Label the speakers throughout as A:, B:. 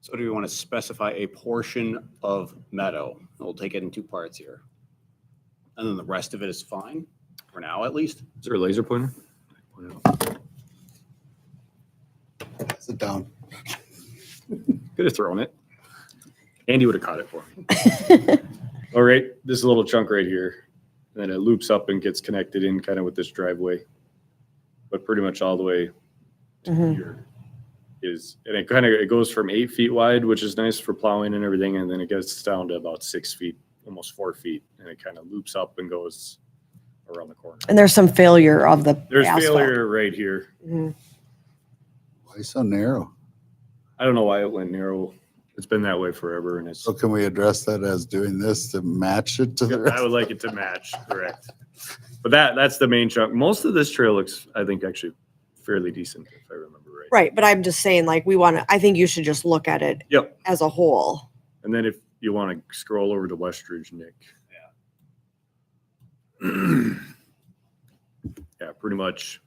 A: So do we want to specify a portion of meadow? We'll take it in two parts here. And then the rest of it is fine, for now at least.
B: Is there a laser pointer?
C: Sit down.
B: Could have thrown it. Andy would have caught it for me. All right, this little chunk right here, then it loops up and gets connected in kind of with this driveway. But pretty much all the way to
D: Mhm.
B: here is, and it kind of, it goes from eight feet wide, which is nice for plowing and everything, and then it gets down to about six feet, almost four feet, and it kind of loops up and goes around the corner.
D: And there's some failure of the
B: There's
D: asphalt.
B: failure right here.
D: Mhm.
C: Why so narrow?
B: I don't know why it went narrow. It's been that way forever and it's,
C: So can we address that as doing this to match it to the
B: I
C: rest?
B: would like it to match, correct. But that, that's the main chunk. Most of this trail looks, I think, actually fairly decent, if I remember right.
D: Right, but I'm just saying, like, we want to, I think you should just look at it
B: Yep.
D: as a whole.
B: And then if you want to scroll over to Westridge, Nick. Yeah, pretty much.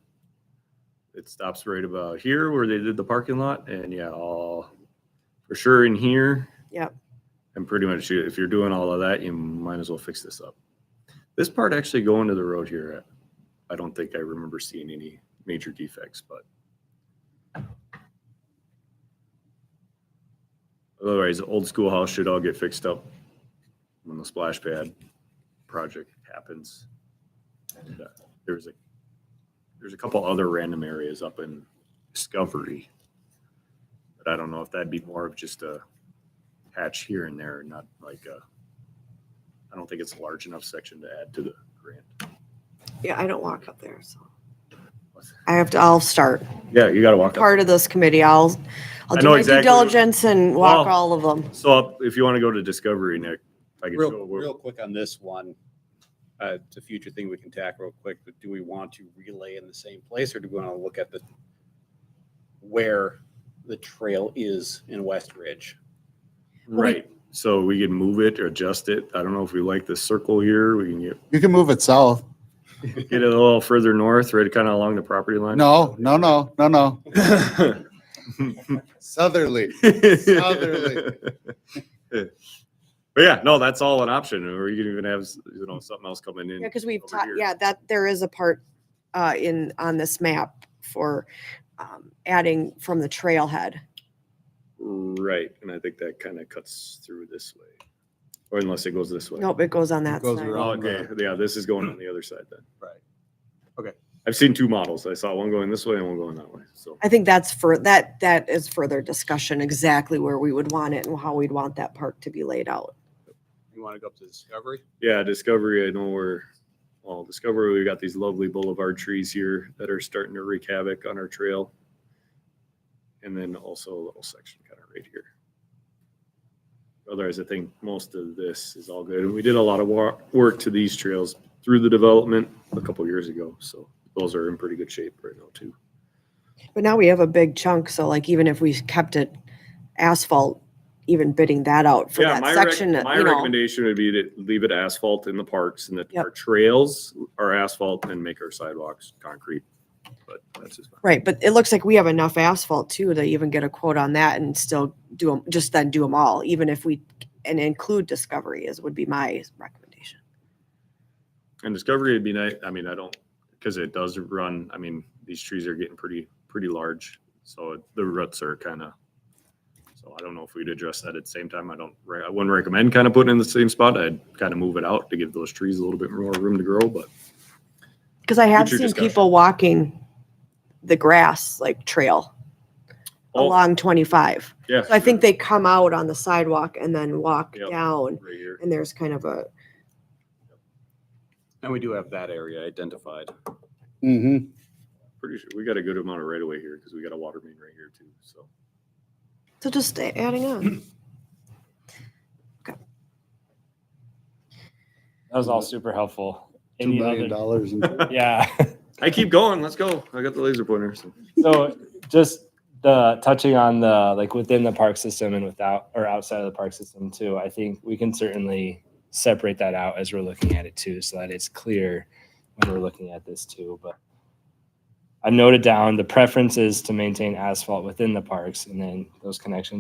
B: It stops right about here where they did the parking lot and yeah, all for sure in here.
D: Yep.
B: And pretty much you- if you're doing all of that, you might as well fix this up. This part actually going to the road here, I don't think I remember seeing any major defects, but. Otherwise, the old schoolhouse should all get fixed up when the splash pad project happens. And, uh, There's a, there's a couple other random areas up in Discovery. But I don't know if that'd be more of just a patch here and there, not like a, I don't think it's a large enough section to add to the grant.
D: Yeah, I don't walk up there, so. I have to, I'll start.
B: Yeah, you gotta walk up.
D: Part of this committee, I'll, I'll
B: I
D: do
B: know
D: my due
B: exactly- Oh.
D: diligence and walk
B: Well-
D: all of them.
B: So up- if you want to go to Discovery, Nick, I can
A: Real,
B: show.
A: real
B: where-
A: quick on this one, uh, it's a future thing we can tackle real quick, but do we want to relay in the same place or do we want to look at the where the trail is in West Ridge?
B: Right, so we can move it or adjust it. I don't know if we like this circle here. We can get
C: You can move it south.
B: Get it a little further north, right kind of along the property line?
C: No, no, no, no, no. Southerly. Southerly.
B: But yeah, no, that's all an option, or you can even have, you know, something else coming in.
D: Yeah, because we've
B: over
D: taught,
B: here.
D: yeah, that, there is a part, uh, in, on this map for, um, adding from the trailhead.
B: Right, and I think that kind of cuts through this way, or unless it goes this way.
D: Nope, it goes on that
C: goes
D: side.
C: around.
B: Oh, Okay, yeah, this is going on the other side then.
A: Right. Okay.
B: I've seen two models. I saw one going this way and one going that way, so.
D: I think that's for, that, that is further discussion, exactly where we would want it and how we'd want that park to be laid out.
A: You want to go up to Discovery?
B: Yeah, Discovery, I know we're, well, Discovery, we've got these lovely boulevard trees here that are starting to wreak havoc on our trail. And then also a little section kind of right here. Otherwise, I think most of this is all good. And we did a lot of wa- work to these trails through the development a couple years ago, so those are in pretty good shape right now too.
D: But now we have a big chunk, so like even if we kept it asphalt, even bidding that out for
B: Yeah,
D: that
B: my
D: section,
B: rec-
D: you
B: my
D: know.
B: recommendation would be to leave it asphalt in the parks and that
D: Yep.
B: our trails are asphalt and make our sidewalks concrete. But that's just. my-
D: Right, but it looks like we have enough asphalt too to even get a quote on that and still do them, just then do them all, even if we, and include Discovery is, would be my recommendation.
B: And Discovery would be nice. I mean, I don't, because it does run, I mean, these trees are getting pretty, pretty large. So the roots are kind of, so I don't know if we'd address that at the same time. I don't, re- I wouldn't recommend kind of putting it in the same spot. I'd kind of move it out to give those trees a little bit more room to grow, but
D: Cause I have
B: Future
D: seen
B: discussion.
D: people walking the grass like trail
B: Oh.
D: along twenty-five.
B: yeah.
D: So I think they come out on the sidewalk and then walk
B: Yep.
D: down
B: Right here.
D: and there's kind of a,
A: And we do have that area identified.
C: Mm-hmm.
B: Pretty sure, we got a good amount of right away here because we got a water main right here too, so.
D: So just a- adding on.
E: That was all super helpful.
C: Two
E: Any
C: million
E: other-
C: dollars. in-
E: Yeah.
B: I keep going. Let's go. I got the laser pointer. so.
E: So just the touching on the like within the park system and without or outside of the park system too, I think we can certainly separate that out as we're looking at it too, so that it's clear when we're looking at this too. But I've noted down the preference is to maintain asphalt within the parks and then those connections